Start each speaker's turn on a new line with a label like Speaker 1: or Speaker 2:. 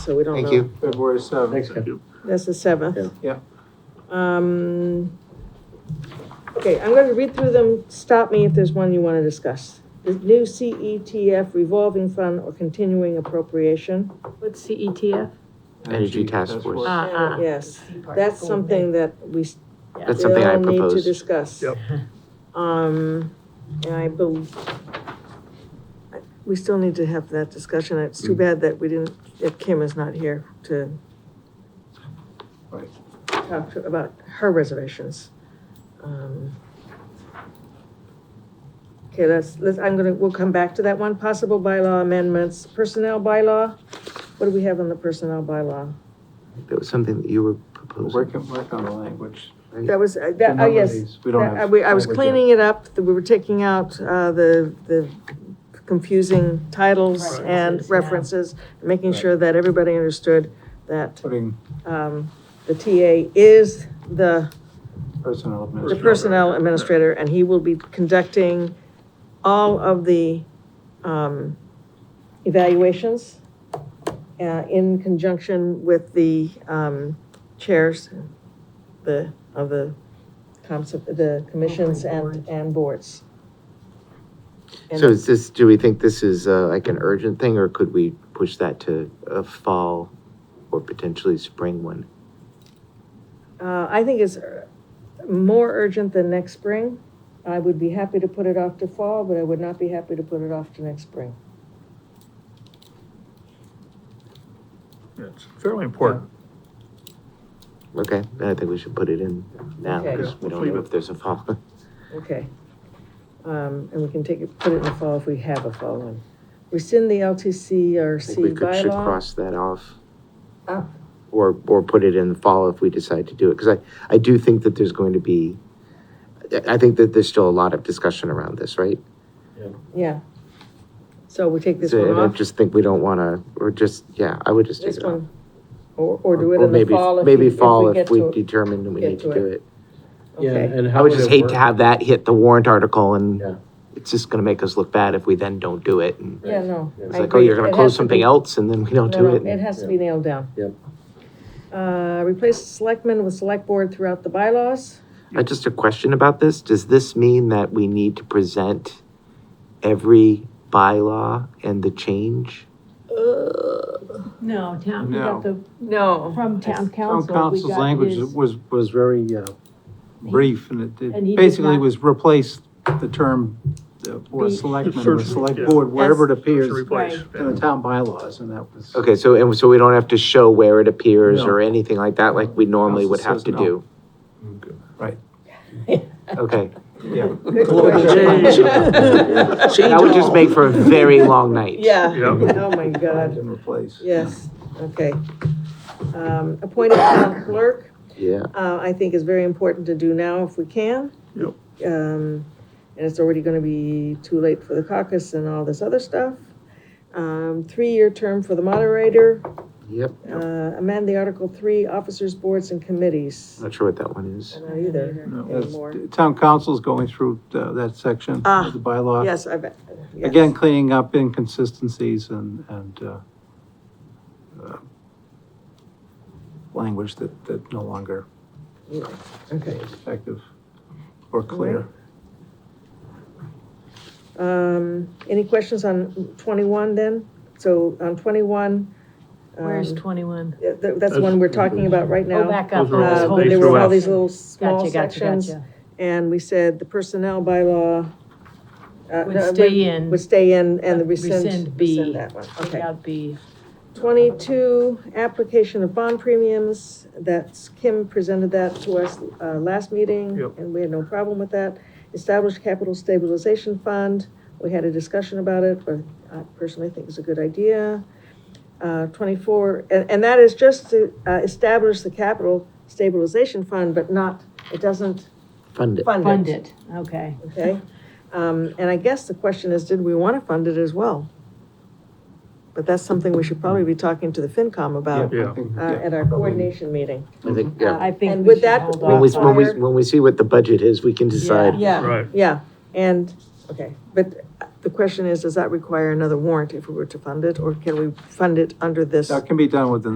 Speaker 1: so we don't
Speaker 2: Thank
Speaker 1: know.
Speaker 2: you.
Speaker 3: February
Speaker 4: Thanks,
Speaker 3: seventh.
Speaker 4: Ken.
Speaker 1: That's the seventh.
Speaker 3: Yeah.
Speaker 1: Um, okay, I'm gonna read through them, stop me if there's one you wanna discuss. The new CETF revolving fund or continuing appropriation,
Speaker 5: What's CETF?
Speaker 2: Energy Task Force.
Speaker 5: Ah, ah.
Speaker 1: yes,
Speaker 6: C part,
Speaker 1: that's
Speaker 6: full
Speaker 1: something that we still
Speaker 2: That's something I
Speaker 1: need to
Speaker 2: proposed.
Speaker 1: discuss.
Speaker 4: Yep.
Speaker 1: Um, and I believe, we still need to have that discussion, it's too bad that we didn't, that Kim is not here to
Speaker 3: Right.
Speaker 1: talk to- about her reservations. Um, Okay, let's, let's, I'm gonna, we'll come back to that one, possible bylaw amendments, personnel bylaw, what do we have on the personnel bylaw?
Speaker 2: That was something that you were
Speaker 3: We're working,
Speaker 2: proposing.
Speaker 3: working on the language.
Speaker 1: That was, uh,
Speaker 3: The
Speaker 1: that, oh,
Speaker 3: number of
Speaker 1: yes.
Speaker 3: these, We don't
Speaker 1: I,
Speaker 3: have.
Speaker 1: we- I was
Speaker 3: language yet.
Speaker 1: cleaning it up, we were taking out, uh, the, the confusing titles
Speaker 6: Right.
Speaker 1: and references, making sure that everybody understood that,
Speaker 3: Putting
Speaker 1: um, the TA is the,
Speaker 3: personnel
Speaker 1: the
Speaker 3: administration.
Speaker 1: personnel administrator, and he will be conducting all of the, um, evaluations, uh, in conjunction with the, um, chairs, the, of the comps, the commissions and, and boards. And-
Speaker 2: So is this, do we think this is uh, like an urgent thing, or could we push that to a fall or potentially spring one?
Speaker 1: Uh, I think it's uh, more urgent than next spring. I would be happy to put it off to fall, but I would not be happy to put it off to next spring.
Speaker 4: It's fairly important.
Speaker 2: Okay, then I think we should put it in now,
Speaker 1: Okay.
Speaker 2: because we
Speaker 4: Yeah,
Speaker 2: don't
Speaker 4: leave
Speaker 2: know
Speaker 4: it.
Speaker 2: if there's a fall.
Speaker 1: Okay. Um, and we can take it, put it in the fall if we have a fall one. Rescind the LTC or
Speaker 2: I
Speaker 1: C
Speaker 2: think we could, should
Speaker 1: bylaw.
Speaker 2: cross that off.
Speaker 4: Oh.
Speaker 1: Ah.
Speaker 2: Or, or put it in the fall if we decide to do it, because I, I do think that there's going to be, I, I think that there's still a lot of discussion around this, right?
Speaker 1: Yeah. So we take this
Speaker 2: So,
Speaker 1: one
Speaker 2: and I
Speaker 1: off,
Speaker 2: just think we don't wanna, or just, yeah, I would just take
Speaker 1: this
Speaker 2: it off.
Speaker 1: one, or, or do it in the
Speaker 2: maybe-
Speaker 1: fall if we,
Speaker 2: Maybe
Speaker 1: if
Speaker 2: fall
Speaker 1: we get
Speaker 2: if we
Speaker 1: to it.
Speaker 2: determine we
Speaker 1: get
Speaker 2: need
Speaker 1: to
Speaker 2: to do it.
Speaker 4: Yeah,
Speaker 1: Okay,
Speaker 4: and
Speaker 2: I
Speaker 4: how
Speaker 2: would
Speaker 4: would
Speaker 2: just
Speaker 4: it
Speaker 2: hate
Speaker 4: work?
Speaker 2: to have that hit the warrant article
Speaker 4: Yeah.
Speaker 2: and it's just gonna make us look bad if we then don't do it. And
Speaker 1: yeah, no.
Speaker 4: Yeah,
Speaker 2: It's
Speaker 1: I
Speaker 2: like, oh,
Speaker 1: agree.
Speaker 2: you're gonna
Speaker 1: It has
Speaker 2: close
Speaker 1: to
Speaker 2: something
Speaker 1: be-
Speaker 2: else and then we don't
Speaker 1: No,
Speaker 2: do
Speaker 1: no, it
Speaker 2: it.
Speaker 1: has to be nailed down.
Speaker 4: Yep.
Speaker 1: Uh, replace selectmen with select board throughout the bylaws.
Speaker 2: Uh, just a question about this, does this mean that we need to present every bylaw and the change?
Speaker 5: No, town, we got the,
Speaker 1: No.
Speaker 5: from
Speaker 3: Town
Speaker 5: town council, we
Speaker 3: council's
Speaker 5: got
Speaker 3: language
Speaker 5: his.
Speaker 3: was, was very, uh, brief, and it-
Speaker 5: And he
Speaker 3: it
Speaker 5: did
Speaker 3: basically
Speaker 5: not-
Speaker 3: was replaced the term, uh, or
Speaker 5: Be-
Speaker 3: selectmen, or
Speaker 4: Search-
Speaker 3: select
Speaker 4: yeah.
Speaker 3: board, wherever it appears
Speaker 4: Should
Speaker 5: Right.
Speaker 4: replace, yeah.
Speaker 3: in the town bylaws, and that was.
Speaker 2: Okay, so, and so we don't have to show where it appears
Speaker 3: No.
Speaker 2: or anything like that, like we normally would have
Speaker 3: Council
Speaker 2: to
Speaker 3: says no.
Speaker 2: do?
Speaker 4: Okay.
Speaker 2: Okay,
Speaker 3: Yeah.
Speaker 1: Good
Speaker 3: question.
Speaker 2: that would just make for a very long night.
Speaker 1: Yeah.
Speaker 4: Yeah.
Speaker 1: Oh, my God.
Speaker 3: And replace.
Speaker 1: Yes, okay. Um, appointed town clerk,
Speaker 2: Yeah,
Speaker 1: uh, I think is very important to do now if we can.
Speaker 4: Yep.
Speaker 1: Um, and it's already gonna be too late for the caucus and all this other stuff. Um, three-year term for the moderator,
Speaker 2: yep,
Speaker 1: uh, amend the Article Three, officers, boards, and committees.
Speaker 2: not sure what that one is.
Speaker 1: I don't either
Speaker 3: That's-
Speaker 1: anymore.
Speaker 3: Town council's going through uh, that section
Speaker 1: Ah,
Speaker 3: of the bylaw.
Speaker 1: Yes, I bet. yes.
Speaker 3: Again, cleaning up inconsistencies and, and, uh, uh, language that, that no longer
Speaker 1: Okay.
Speaker 3: is effective or clear.
Speaker 1: Um, any questions on twenty-one then? So on twenty-one. um,
Speaker 5: Where's twenty-one?
Speaker 1: th- th- That's the one we're talking about right now.
Speaker 5: Oh, back up.
Speaker 4: Those are all
Speaker 1: Uh,
Speaker 5: This
Speaker 4: they
Speaker 5: whole
Speaker 1: But there were all
Speaker 4: out.
Speaker 1: these little small
Speaker 5: Gotcha, gotcha,
Speaker 1: sections,
Speaker 5: gotcha.
Speaker 1: and we said the personnel bylaw. uh,
Speaker 5: Would
Speaker 1: no,
Speaker 5: stay in.
Speaker 1: Would stay in, and the rescind,
Speaker 5: Rescind B.
Speaker 1: rescind that one,
Speaker 5: Take
Speaker 1: okay.
Speaker 5: out B.
Speaker 1: Twenty-two, application of bond premiums, that's, Kim presented that to us, uh, last meeting.
Speaker 4: Yep.
Speaker 1: And we had no problem with that. Established capital stabilization fund, we had a discussion about it, but I personally think it's a good idea. Uh, twenty-four, and, and that is just to, uh, establish the capital stabilization fund, but not, it doesn't
Speaker 2: Fund it.
Speaker 1: fund it.
Speaker 5: Fund it, okay.
Speaker 1: Okay, um, and I guess the question is, did we want to fund it as well? But that's something we should probably be talking to the FinCom about,
Speaker 4: Yeah.
Speaker 3: I think,
Speaker 1: uh,
Speaker 3: yeah.
Speaker 1: at our coordination meeting.
Speaker 2: I think,
Speaker 5: Uh,
Speaker 2: yeah.
Speaker 5: I think
Speaker 1: And
Speaker 5: we
Speaker 1: with
Speaker 5: should
Speaker 1: that,
Speaker 5: hold
Speaker 1: we-
Speaker 2: When we,
Speaker 5: off
Speaker 2: when
Speaker 5: on
Speaker 2: we,
Speaker 1: fire.
Speaker 2: when we see what the budget is, we can decide.
Speaker 5: Yeah.
Speaker 4: Right.
Speaker 1: Yeah, and, okay, but the question is, does that require another warrant if we were to fund it, or can we fund it under this?
Speaker 3: That can be done within